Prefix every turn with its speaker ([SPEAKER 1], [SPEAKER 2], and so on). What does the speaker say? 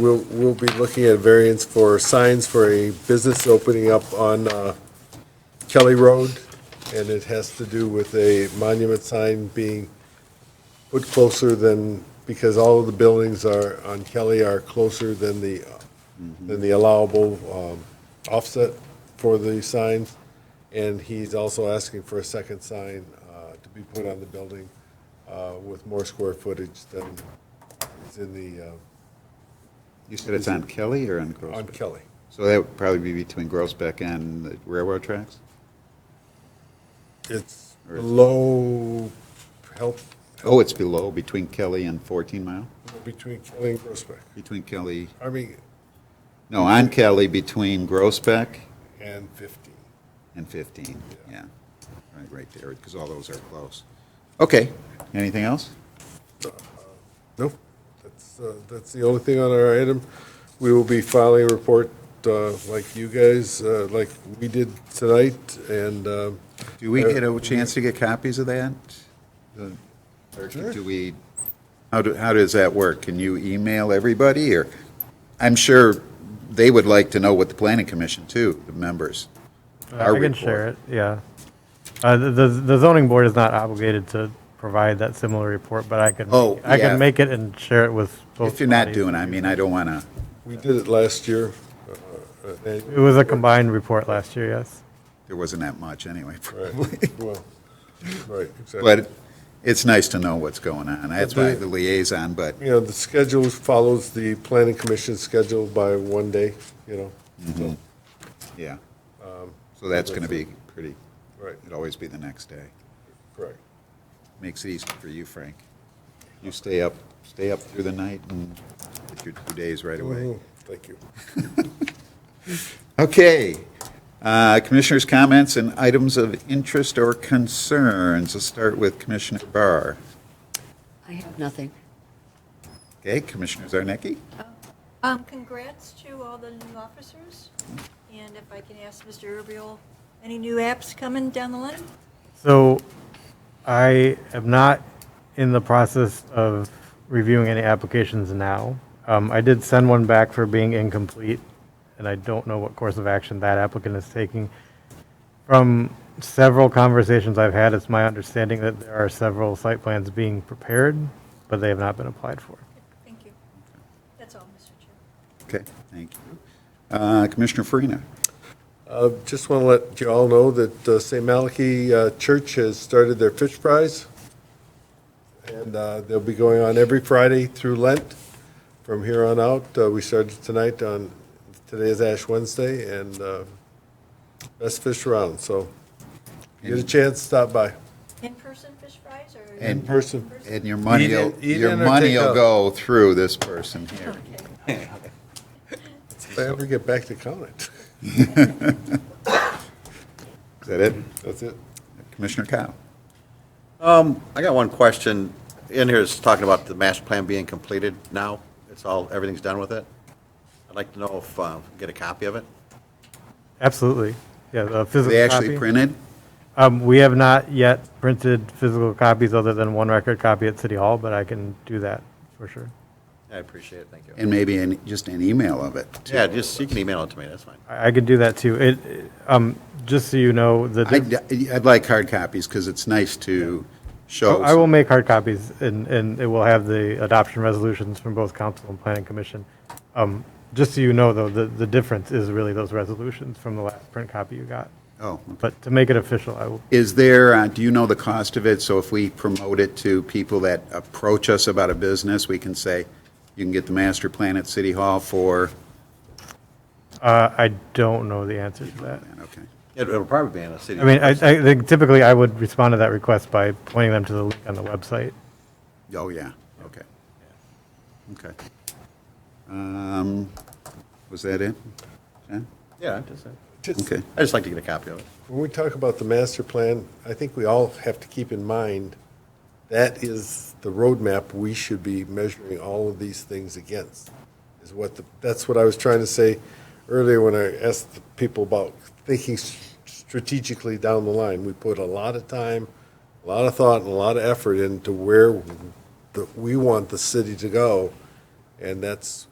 [SPEAKER 1] We'll, we'll be looking at variance for signs for a business opening up on uh, Kelly Road, and it has to do with a monument sign being put closer than, because all of the buildings are, on Kelly are closer than the, than the allowable um, offset for the signs. And he's also asking for a second sign uh, to be put on the building uh, with more square footage than is in the, uh,
[SPEAKER 2] You said it's on Kelly or on
[SPEAKER 1] on
[SPEAKER 2] Groesbeck?
[SPEAKER 1] Kelly.
[SPEAKER 2] So that would probably be between Groesbeck and the railroad tracks?
[SPEAKER 1] It's below health,
[SPEAKER 2] Oh, it's below, between Kelly and 14 Mile?
[SPEAKER 1] between Kelly and Groesbeck.
[SPEAKER 2] Between Kelly,
[SPEAKER 1] I mean,
[SPEAKER 2] no, on Kelly, between Groesbeck
[SPEAKER 1] and 15.
[SPEAKER 2] and 15, yeah. Right, right there, because all those are close. Okay, anything else?
[SPEAKER 1] Nope, that's, uh, that's the only thing on our item. We will be filing a report uh, like you guys, uh, like we did tonight, and uh,
[SPEAKER 2] Do we get a chance to get copies of that? The- Or do we, how do, how does that work? Can you email everybody, or? I'm sure they would like to know what the planning commission, too, the members.
[SPEAKER 3] Uh, I can share it, yeah. Uh, the, the the zoning board is not obligated to provide that similar report, but I can,
[SPEAKER 2] Oh,
[SPEAKER 3] I
[SPEAKER 2] yeah.
[SPEAKER 3] can make it and share it with both.
[SPEAKER 2] If you're not
[SPEAKER 3] bodies.
[SPEAKER 2] doing, I mean, I don't want to,
[SPEAKER 1] we did it last year. uh, and-
[SPEAKER 3] It was a combined report last year, yes.
[SPEAKER 2] there wasn't that much anyway,
[SPEAKER 1] Right,
[SPEAKER 2] probably.
[SPEAKER 1] well, right, exactly.
[SPEAKER 2] But it's nice to know what's going on. That's why
[SPEAKER 1] do-
[SPEAKER 2] the liaison, but,
[SPEAKER 1] you know, the schedule follows the planning commission's schedule by one day, you know? so,
[SPEAKER 2] yeah. So that's going to be pretty,
[SPEAKER 1] Right,
[SPEAKER 2] it'd always be the next day.
[SPEAKER 1] correct.
[SPEAKER 2] Makes it easy for you, Frank. You stay up, stay up through the night and get your two days right away.
[SPEAKER 1] Mhm, Thank you.
[SPEAKER 2] Okay. Uh, Commissioners' comments and items of interest or concerns. Let's start with Commissioner Barr.
[SPEAKER 4] I have nothing.
[SPEAKER 2] Okay, Commissioner Zarnicki?
[SPEAKER 5] Um, congrats to all the new officers, and if I can ask Mr. Urbiel, any new apps coming down the line?
[SPEAKER 3] So I am not in the process of reviewing any applications now. Um, I did send one back for being incomplete, and I don't know what course of action that applicant is taking. From several conversations I've had, it's my understanding that there are several site plans being prepared, but they have not been applied for.
[SPEAKER 5] Thank you. That's all, Mr. Chair.
[SPEAKER 2] Okay, thank you. Uh, Commissioner Farina?
[SPEAKER 1] Uh, Just want to let you all know that uh, St. Malachi uh, Church has started their fish fries, and uh, they'll be going on every Friday through Lent from here on out. Uh, We started tonight on, today is Ash Wednesday, and uh, best fish around, so if you get a chance, stop by.
[SPEAKER 5] In-person fish fries or?
[SPEAKER 2] In
[SPEAKER 1] person.
[SPEAKER 2] And your money,
[SPEAKER 1] Eat in-
[SPEAKER 2] will-
[SPEAKER 1] eat
[SPEAKER 2] your
[SPEAKER 1] in or
[SPEAKER 2] money
[SPEAKER 1] take
[SPEAKER 2] will
[SPEAKER 1] out?
[SPEAKER 2] go through this person here.
[SPEAKER 1] If I ever get back to Conant.
[SPEAKER 2] Is that it?
[SPEAKER 1] That's it.
[SPEAKER 2] Commissioner Cow?
[SPEAKER 6] Um, I got one question. In here, it's talking about the master plan being completed now. It's all, everything's done with it. I'd like to know if, uh, get a copy of it.
[SPEAKER 3] Absolutely. Yeah, the physical
[SPEAKER 2] They actually
[SPEAKER 3] copy.
[SPEAKER 2] printed?
[SPEAKER 3] Um, we have not yet printed physical copies other than one record copy at City Hall, but I can do that for sure.
[SPEAKER 6] I appreciate it, thank you.
[SPEAKER 2] And maybe an- just an email of it. too.
[SPEAKER 6] Yeah, just, you can email it to me, that's fine.
[SPEAKER 3] I I could do that too. It, it- um, just so you know, the,
[SPEAKER 2] I'd I'd like hard copies because it's nice to show.
[SPEAKER 3] I will make hard copies and, and it will have the adoption resolutions from both council and planning commission. Um, just so you know though, the, the difference is really those resolutions from the last print copy you got.
[SPEAKER 2] Oh,
[SPEAKER 3] But to make it official, I will,
[SPEAKER 2] is there, uh, do you know the cost of it? So if we promote it to people that approach us about a business, we can say, you can get the master plan at City Hall for,
[SPEAKER 3] uh, I don't know the answer to that.
[SPEAKER 2] okay.
[SPEAKER 6] It- It'll probably be in a city.
[SPEAKER 3] I mean, I, I think typically I would respond to that request by pointing them to the link on the website.
[SPEAKER 2] Oh, yeah, okay. Okay. Um, Was that it? Jen?
[SPEAKER 6] Yeah, I just,
[SPEAKER 1] Just-
[SPEAKER 2] Okay.
[SPEAKER 6] I just like to get a copy of it.
[SPEAKER 1] When we talk about the master plan, I think we all have to keep in mind, that is the roadmap we should be measuring all of these things against, is what the, that's what I was trying to say earlier when I asked the people about thinking s- strategically down the line. We put a lot of time, a lot of thought, and a lot of effort into where the- we want the city to go, and that's